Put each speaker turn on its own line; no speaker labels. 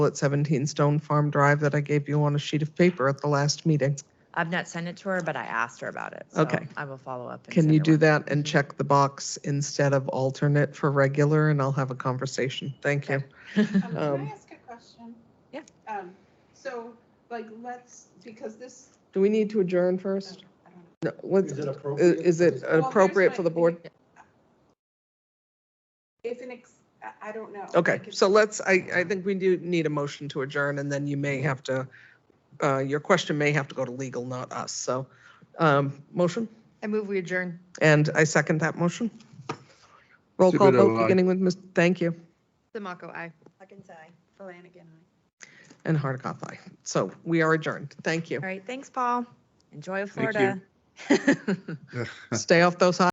at 17 Stone Farm Drive that I gave you on a sheet of paper at the last meeting.
I've not sent it to her, but I asked her about it. so
Okay.
I will follow up. and
Can
send
you
her
do
one.
that and check the box instead of alternate for regular, and I'll have a conversation? Thank you.
Okay.
Um,
Um, Can I ask a question?
Yeah.
Um, So, like, let's, because this.
Do we need to adjourn
oh,
first?
I don't know.
No, what's,
Is it appropriate?
uh, is it
Well, here's
appropriate
my
for the
thing.
board?
If an, ex I- I don't know.
Okay,
Like, if-
so let's, I, I think we do need a motion to adjourn, and then you may have to, uh, your question may have to go to legal, not us, so. um, Motion,
I move we adjourn.
and I second that motion. Roll call
Zibito,
vote,
aye.
beginning with, Ms. thank you,
Demaco, aye.
Huggins, aye. Flanagan, aye.
and Hardikoff, aye. So we are adjourned, thank you.
All right, thanks, Paul. Enjoy Florida.
Thank
Stay off those hot